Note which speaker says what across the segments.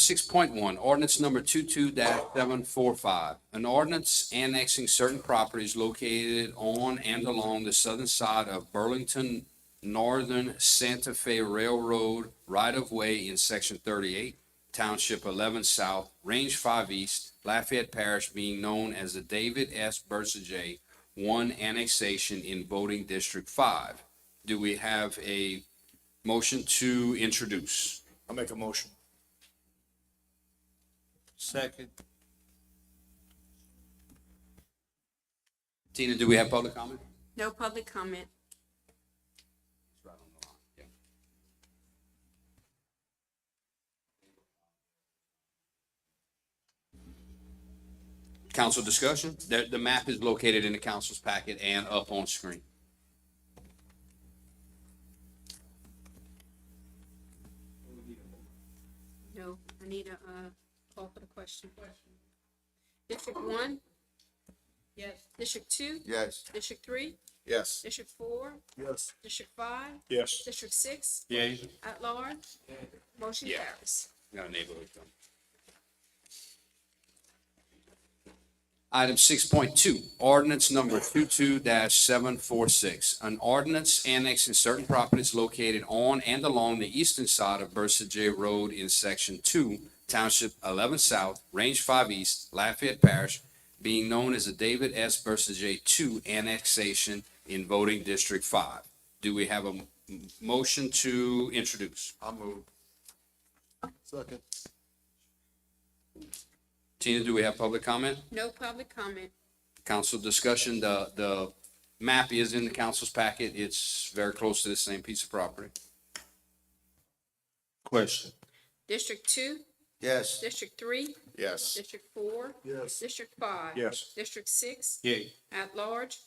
Speaker 1: Six point one, ordinance number two-two seven four five. An ordinance annexing certain properties located on and along the southern side of Burlington Northern Santa Fe Railroad right-of-way in section thirty-eight, township eleven south, range five east, Lafayette Parish being known as the David S. Bursajay one annexation in voting district five. Do we have a motion to introduce?
Speaker 2: I'll make a motion.
Speaker 3: Second.
Speaker 1: Tina, do we have public comment?
Speaker 4: No public comment.
Speaker 1: Right on the line, yeah. Council discussion? The, the map is located in the council's packet and up on screen.
Speaker 4: No, I need a, uh, call for the question. District one? Yes. District two?
Speaker 2: Yes.
Speaker 4: District three?
Speaker 2: Yes.
Speaker 4: District four?
Speaker 2: Yes.
Speaker 4: District five?
Speaker 2: Yes.
Speaker 4: District six?
Speaker 1: Yeah.
Speaker 4: At large? Motion
Speaker 1: Yeah.
Speaker 4: carries.
Speaker 1: Got a neighborhood come. Item six point two, ordinance number 22 seven four six. An ordinance annexing certain properties located on and along the eastern side of Bursa J Road in section two, township eleven south, range five east, Lafayette Parish, being known as the David S. Bursa J two annexation in voting district five. Do we have a m- m- motion to introduce?
Speaker 2: I'll move. Second.
Speaker 1: Tina, do we have public comment?
Speaker 4: No public comment.
Speaker 1: council discussion, the, the map is in the council's packet. It's very close to the same piece of property.
Speaker 3: Question.
Speaker 4: District two?
Speaker 2: Yes.
Speaker 4: District three?
Speaker 2: Yes.
Speaker 4: District four?
Speaker 2: Yes.
Speaker 4: District five?
Speaker 2: Yes.
Speaker 4: District six?
Speaker 3: Yay.
Speaker 4: At large?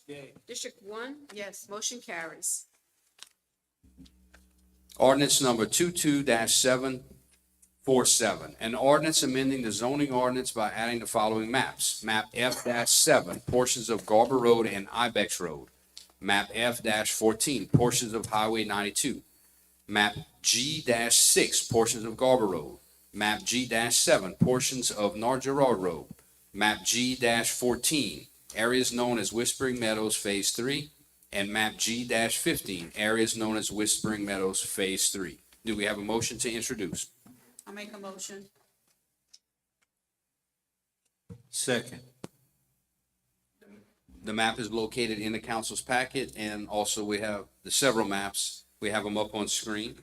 Speaker 4: District one? Yes. Motion carries.
Speaker 1: Ordinance number two-two seven four seven. An ordinance amending the zoning ordinance by adding the following maps. Map F seven, portions of Garber Road and Ibex Road. Map F fourteen, portions of Highway ninety-two. Map G six, portions of Garber Road. Map G seven, portions of Nargerar Road. Map G fourteen, areas known as Whispering Meadows Phase Three and map G fifteen, areas known as Whispering Meadows Phase Three. Do we have a motion to introduce?
Speaker 4: I'll make a motion.
Speaker 3: Second.
Speaker 1: The map is located in the council's packet and also we have the several maps. We have them up on screen.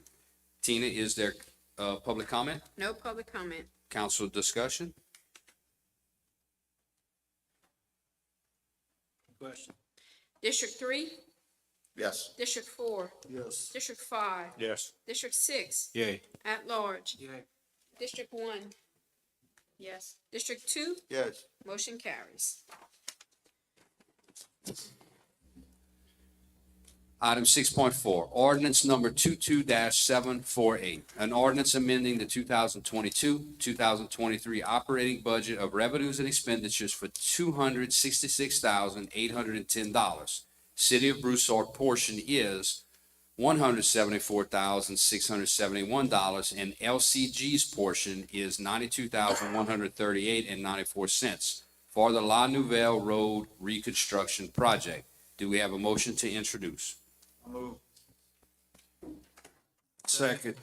Speaker 1: Tina, is there, uh, public comment,
Speaker 4: No public comment.
Speaker 1: council discussion?
Speaker 3: Question.
Speaker 4: District three?
Speaker 2: Yes.
Speaker 4: District four?
Speaker 2: Yes.
Speaker 4: District five?
Speaker 2: Yes.
Speaker 4: District six?
Speaker 3: Yay.
Speaker 4: At large?
Speaker 3: Yay.
Speaker 4: District one? Yes. District two?
Speaker 2: Yes.
Speaker 4: Motion carries.
Speaker 1: Item six point four, ordinance number two-two seven four eight. An ordinance amending the two thousand twenty-two, two thousand twenty-three operating budget of revenues and expenditures for two hundred sixty-six thousand eight hundred and ten dollars. City of Broussard portion is one hundred seventy-four thousand six hundred seventy-one dollars and LCG's portion is ninety-two thousand one hundred thirty-eight and ninety-four cents for the La Nouvelle Road Reconstruction Project. Do we have a motion to introduce?
Speaker 2: I'll move.
Speaker 3: Second.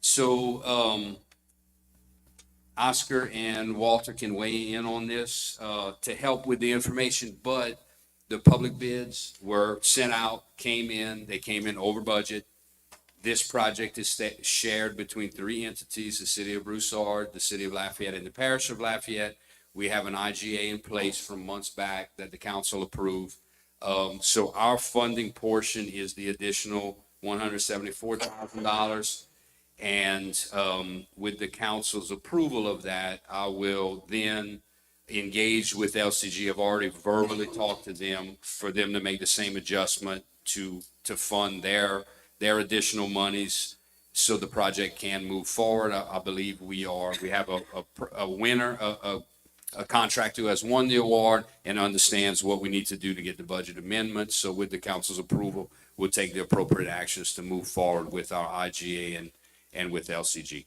Speaker 1: So, um, Oscar and Walter can weigh in on this, uh, to help with the information, but the public bids were sent out, came in, they came in over budget. This project is sta- shared between three entities, the city of Broussard, the city of Lafayette, and the parish of Lafayette. We have an IGA in place from months back that the council approved. Um, so our funding portion is the additional one hundred seventy-four thousand dollars. And um, with the council's approval of that, I will then engage with LCG. I've already verbally talked to them for them to make the same adjustment to, to fund their, their additional monies so the project can move forward. I, I believe we are, we have a, a pr- a winner, a, a, a contractor who has won the award and understands what we need to do to get the budget amendment. So with the council's approval, we'll take the appropriate actions to move forward with our IGA and, and with LCG.